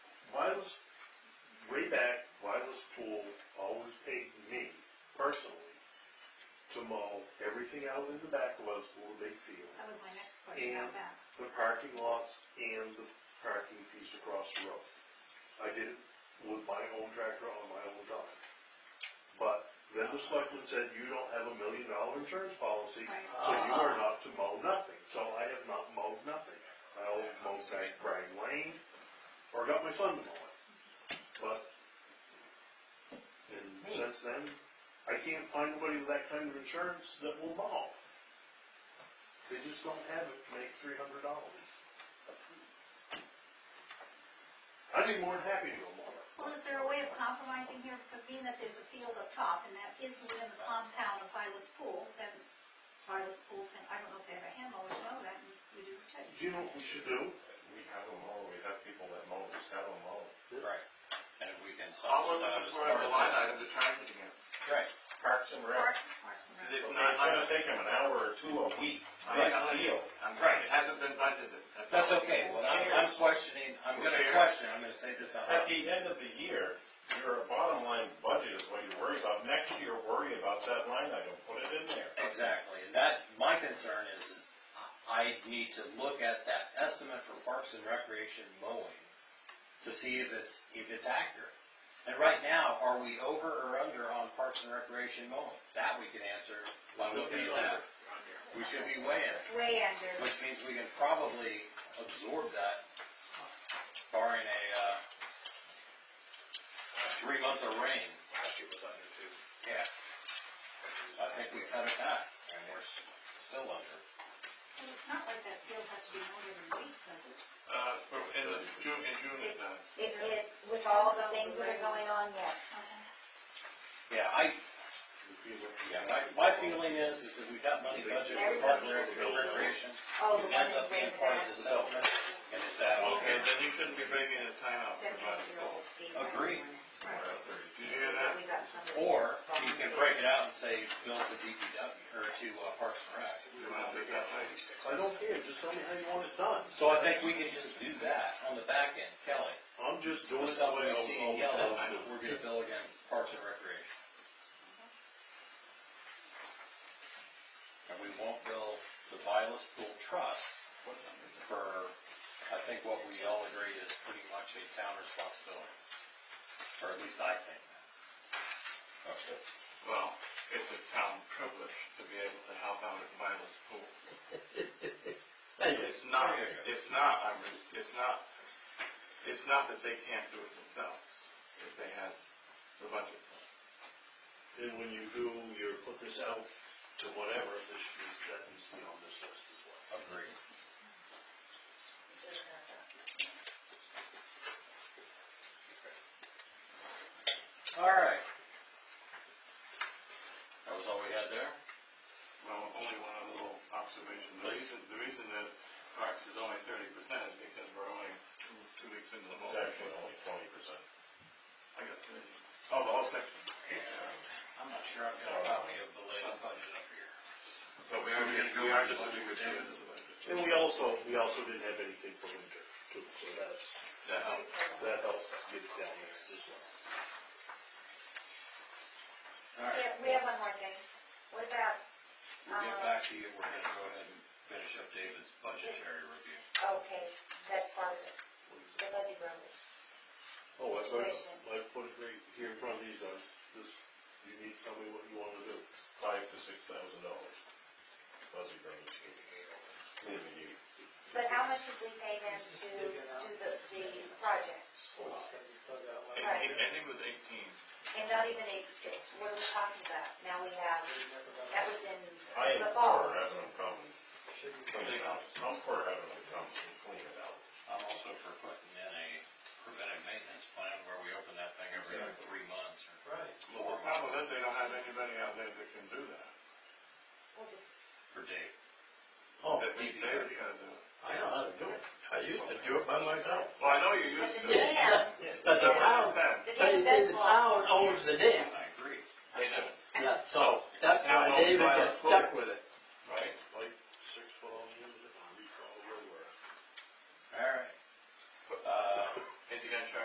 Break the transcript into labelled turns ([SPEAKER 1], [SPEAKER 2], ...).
[SPEAKER 1] Wireless, way back, Wireless Pool always paid me personally to mow everything out in the back of our school big field,
[SPEAKER 2] That was my next question about that.
[SPEAKER 1] the parking lots and the parking piece across the road. I did it with my own tractor on my own dime. But then the selectman said, you don't have a million dollar insurance policy, so you are not to mow nothing. So I have not mowed nothing. I only mowed back Bragg Lane, or got my son to mow it. But, and since then, I can't find anybody with that kind of insurance that will mow. They just don't have it to make three hundred dollars. I'd be more than happy to go mow it.
[SPEAKER 2] Well, is there a way of compromising here, because being that there's a field up top, and that is within the compound of Vilas Pool, then Vilas Pool, can I don't know if they have a handle, we know that, and we do study.
[SPEAKER 1] Do you know what we should do?
[SPEAKER 3] We have them all, we have people that mow, just have them mow.
[SPEAKER 4] Right, and if we can sell
[SPEAKER 5] All we're
[SPEAKER 4] this out
[SPEAKER 5] looking
[SPEAKER 4] as
[SPEAKER 5] for
[SPEAKER 4] part of
[SPEAKER 5] is a line
[SPEAKER 4] that.
[SPEAKER 5] item to track it again.
[SPEAKER 4] Right,
[SPEAKER 3] Parks and Rec.
[SPEAKER 2] Parks Parks and Rec.
[SPEAKER 5] It's
[SPEAKER 3] It's
[SPEAKER 5] not-
[SPEAKER 3] gonna take them an hour or two a week,
[SPEAKER 5] I'm
[SPEAKER 3] big
[SPEAKER 5] telling you,
[SPEAKER 3] deal.
[SPEAKER 5] I'm right, it hasn't been budgeted.
[SPEAKER 4] that's
[SPEAKER 5] all.
[SPEAKER 4] okay, well, I'm, I'm questioning, I'm gonna
[SPEAKER 5] Here.
[SPEAKER 4] question, I'm gonna say this out
[SPEAKER 3] At
[SPEAKER 4] loud.
[SPEAKER 3] the end of the year, your bottom line budget is what you worry about, next year worry about that line item, put it in there.
[SPEAKER 4] Exactly, and that, my concern is, is I need to look at that estimate for parks and recreation mowing to see if it's, if it's accurate. And right now, are we over or under on parks and recreation mowing? That we can answer by looking at that. We should be way in,
[SPEAKER 2] Way under,
[SPEAKER 4] which means we can probably absorb that barring a, uh, three months of rain.
[SPEAKER 6] Last year was under two.
[SPEAKER 4] Yeah. I think we cut it back, and we're s- still under.
[SPEAKER 2] Well, it's not like that field has to be mowed every week, does it?
[SPEAKER 5] Uh, for- in the June, in June, it does.
[SPEAKER 7] It, it, with all the things that are going on, yes.
[SPEAKER 4] Yeah, I, yeah, my, my feeling is, is that we've got money budgeted for park and rec- for recreation.
[SPEAKER 7] Oh, the
[SPEAKER 4] It
[SPEAKER 7] one
[SPEAKER 4] ends
[SPEAKER 7] that
[SPEAKER 4] up being
[SPEAKER 7] ran
[SPEAKER 4] part of
[SPEAKER 7] back,
[SPEAKER 4] the settlement, and it's that
[SPEAKER 5] Okay,
[SPEAKER 4] okay?
[SPEAKER 5] then you shouldn't be bringing a timeout for budget.
[SPEAKER 7] seventy-year-old Steve.
[SPEAKER 4] Agreed.
[SPEAKER 2] Right.
[SPEAKER 5] Did you hear that?
[SPEAKER 7] We got somebody.
[SPEAKER 4] Or you can break it out and say, bill to DPW, or to uh, Parks and Rec.
[SPEAKER 5] You wanna make that way?
[SPEAKER 1] I don't care, just tell me how you want it done.
[SPEAKER 4] So I think we can just do that on the back end, Kelly.
[SPEAKER 1] I'm just doing
[SPEAKER 4] The
[SPEAKER 1] it the
[SPEAKER 4] stuff
[SPEAKER 1] way I
[SPEAKER 4] we
[SPEAKER 1] was
[SPEAKER 4] see in
[SPEAKER 1] always
[SPEAKER 4] yellow,
[SPEAKER 1] done.
[SPEAKER 4] we're gonna bill against Parks and Recreation. And we won't bill the Vilas Pool Trust for, I think what we all agree is pretty much a town responsibility. Or at least I think that. Okay.
[SPEAKER 5] Well, it's a town privilege to be able to help out at Vilas Pool. It's not, it's not, I'm, re- it's not, it's not that they can't do it themselves, if they had the budget.
[SPEAKER 1] Then when you do, your put this out to whatever, this should, be- that needs to be on this list as well.
[SPEAKER 4] Agreed. All right. That was all we had there?
[SPEAKER 5] Well, only one other little observation. The reason, the reason that Parks is only thirty percent is because we're only two, two weeks into the whole
[SPEAKER 3] It's
[SPEAKER 5] section.
[SPEAKER 3] actually only twenty percent.
[SPEAKER 5] I got thirty. Oh, the whole section.
[SPEAKER 4] I'm not sure I've got a copy of the latest budget up here.
[SPEAKER 5] But we are, we are just as good as the budget.
[SPEAKER 1] And we also, we also didn't have anything for winter too, so that's,
[SPEAKER 5] That helps.
[SPEAKER 1] that helps get it down there as well.
[SPEAKER 4] All right,
[SPEAKER 7] Yeah, uh, we have one more thing. What about, um,
[SPEAKER 4] we'll get back to you, we're gonna go ahead and finish up David's budgetary review.
[SPEAKER 7] okay, that's part of it, the Muzzy Brothers.
[SPEAKER 1] Oh, I,
[SPEAKER 7] Situation.
[SPEAKER 1] I put it right here in front of these guys, this, you need to tell me what you want to do.
[SPEAKER 3] Five to six thousand dollars. Fuzzy Brothers. Maybe eight.
[SPEAKER 7] But how much did we pay them to do the, the project?
[SPEAKER 5] And
[SPEAKER 7] Right.
[SPEAKER 5] I think it was eighteen.
[SPEAKER 7] And not even a, what are we talking about? Now we have, that was in
[SPEAKER 3] I am
[SPEAKER 7] the fall.
[SPEAKER 3] for having them come clean it out. I'm for having them come and clean it out.
[SPEAKER 4] I'm also for putting in a preventive maintenance plan where we open that thing every three months or
[SPEAKER 3] Right.
[SPEAKER 4] four
[SPEAKER 5] Well, the problem
[SPEAKER 4] months
[SPEAKER 5] is they don't have anybody out there that can do that.
[SPEAKER 7] Well, the
[SPEAKER 4] for Dave.
[SPEAKER 1] Oh,
[SPEAKER 5] That means David's gotta do it.
[SPEAKER 1] I know how to do it. I used to do it by myself.
[SPEAKER 5] Well, I know you
[SPEAKER 7] But
[SPEAKER 5] used to.
[SPEAKER 7] the dam,
[SPEAKER 8] But the
[SPEAKER 5] Then,
[SPEAKER 8] town,
[SPEAKER 7] the dam
[SPEAKER 8] but you see,
[SPEAKER 7] does
[SPEAKER 8] the
[SPEAKER 7] block.
[SPEAKER 8] town owns the dam,
[SPEAKER 4] I agree.
[SPEAKER 5] They don't.
[SPEAKER 8] yeah, so that's why David gets stuck with it.
[SPEAKER 4] Uh,